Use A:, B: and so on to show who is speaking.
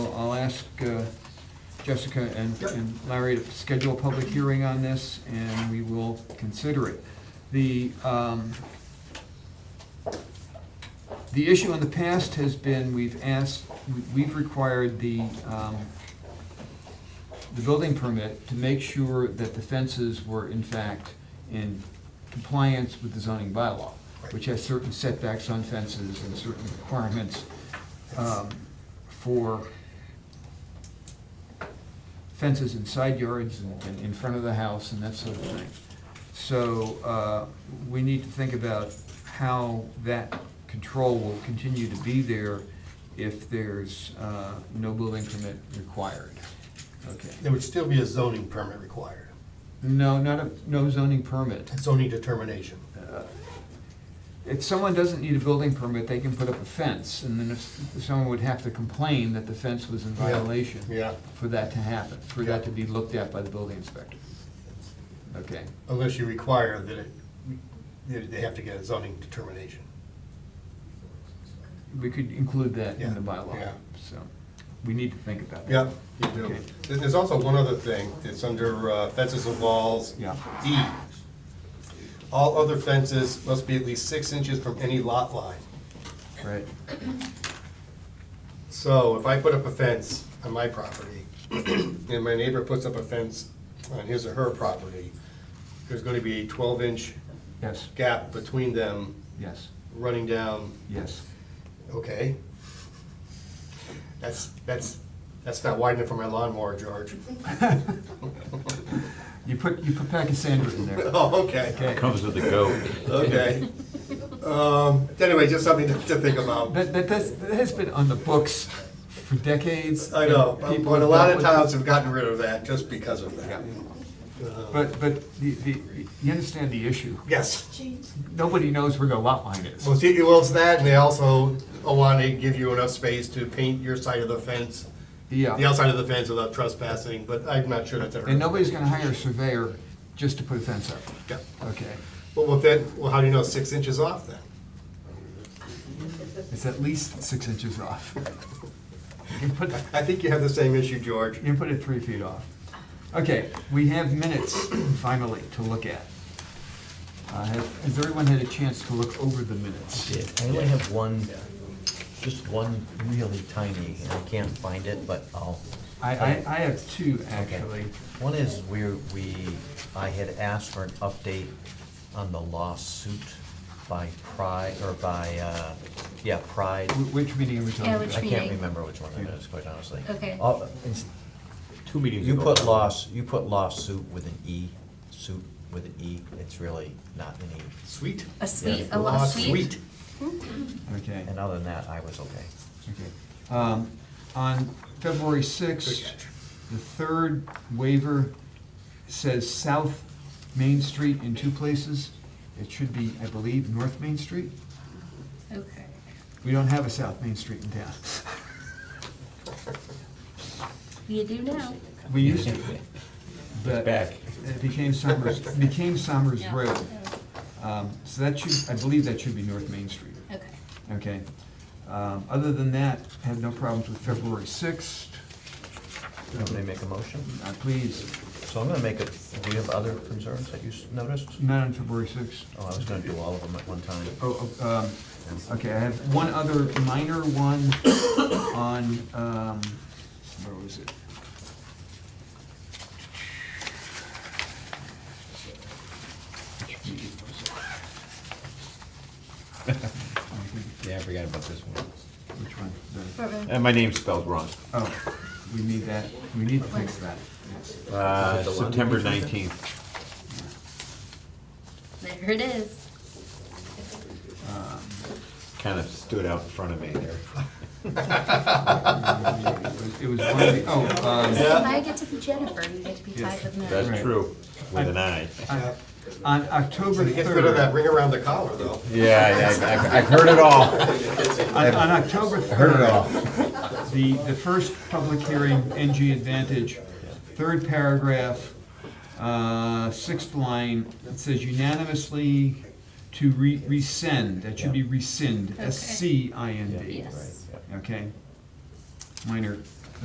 A: ask uh, Jessica and
B: Yep.
A: and Larry to schedule a public hearing on this, and we will consider it. The, um, the issue in the past has been, we've asked, we- we've required the, um, the building permit to make sure that the fences were in fact in compliance with the zoning bylaw, which has certain setbacks on fences and certain requirements um, for fences in side yards and and in front of the house and that sort of thing. So uh, we need to think about how that control will continue to be there if there's uh, no building permit required. Okay.
B: There would still be a zoning permit required,
A: No, not a, no zoning permit.
B: a zoning determination.
A: If someone doesn't need a building permit, they can put up a fence, and then if someone would have to complain that the fence was in violation.
B: Yeah,
A: For that to happen, for that to be looked at by the building inspector. Okay,
B: unless you require that it, that they have to get a zoning determination.
A: we could include that in the
B: Yeah,
A: bylaw,
B: yeah.
A: so, we need to think about that.
C: Yeah, you
A: Okay.
C: do. There- There's also one other thing, it's under uh, fences and walls.
A: Yeah.
C: E. All other fences must be at least six inches from any lot line.
A: Right,
C: So if I put up a fence on my property, and my neighbor puts up a fence on his or her property, there's gonna be a twelve-inch
A: yes,
C: gap between them
A: yes,
C: running down,
A: yes.
C: okay? That's, that's, that's not wide enough for my lawnmower, George.
A: You put, you put Pachysandra in there,
C: Oh, okay.
A: okay?
D: Comes with the goat.
C: Okay. Um, Anyway, just something to to think about.
A: That, that, that's- that has been on the books for decades.
C: I know,
A: and people
C: but a lot
A: have dealt
C: of
A: with it.
C: towns have gotten rid of that just because of that.
A: But, but the, the, you understand the issue.
C: Yes,
A: Nobody knows where the lot line is.
C: well, see, well, it's that, and they also want to give you enough space to paint your side of the fence, the
A: Yeah,
C: outside of the fence without trespassing, but I'm not sure that's ever.
A: uh, and nobody's gonna hire a surveyor just to put a fence up,
C: Yeah.
A: okay?
C: Well, well, then, well, how do you know it's six inches off then?
A: It's at least six inches off. You can put, you
C: I think you have the same issue, George.
A: can put it three feet off. Okay, we have minutes finally to look at. Uh, have- Has everyone had a chance to look over the minutes?
E: did. I only have one, just one really tiny, and I can't find it, but I'll.
A: I, I, I have two, actually.
E: One is where we, I had asked for an update on the lawsuit by Pride, or by, uh, yeah, Pride.
A: Wh- Which meeting are we talking
F: Yeah,
A: about?
F: which
E: I can't
F: meeting?
E: remember which one it is, quite honestly.
F: Okay.
E: All- it's-
D: Two meetings
E: You
D: ago.
E: put loss, you put lawsuit with an E, suit with an E, it's really not an E.
C: Sweet.
F: A sweet,
E: Yeah.
F: a lot of sweet.
A: Okay.
E: And other than that, I was okay.
A: Okay. Um, On February 6th, the third waiver says South Main Street in two places. It should be, I believe, North Main Street.
F: Okay.
A: We don't have a South Main Street in town.
F: You do now.
A: We used to, but
D: Back.
A: it became Summers, became Summers
F: Yeah.
A: Road. Um, So that should, I believe that should be North Main Street.
F: Okay.
A: Okay. Um, Other than that, had no problems with February 6th.
E: Can I make a motion?
A: Uh, Please,
E: So I'm gonna make a, do you have other concerns that you s- noticed?
A: not on February 6th.
E: Oh, I was gonna do all of them at one time.
A: Oh, oh, um, okay, I have one other minor one on, um, where was it? Which meeting was it?
D: Yeah, I forgot about this one.
A: Which one? The-
F: Portman.
D: And my name's spelled wrong.
A: Oh, we need that, we need to fix that. Yes.
D: Uh, September nineteenth.
F: There it is.
A: Um,
D: Kind of stood out in front of me there.
A: It was one of the, oh, um,
F: So If I get to be Jennifer, you get to be
A: Yes.
F: tied with Matt.
D: That's
A: Right.
D: true. With an I.
A: on- on October
C: It gets rid of that
A: third,
C: ring around the collar, though.
D: Yeah, I- I've, I've heard it all.
A: on on October third.
D: Heard it all.
A: The, the first public hearing, NG Advantage, third paragraph, uh, sixth line, it says unanimously to re- rescind, that should be rescind, S-C-I-N-D.
F: Yes.
A: Okay? Minor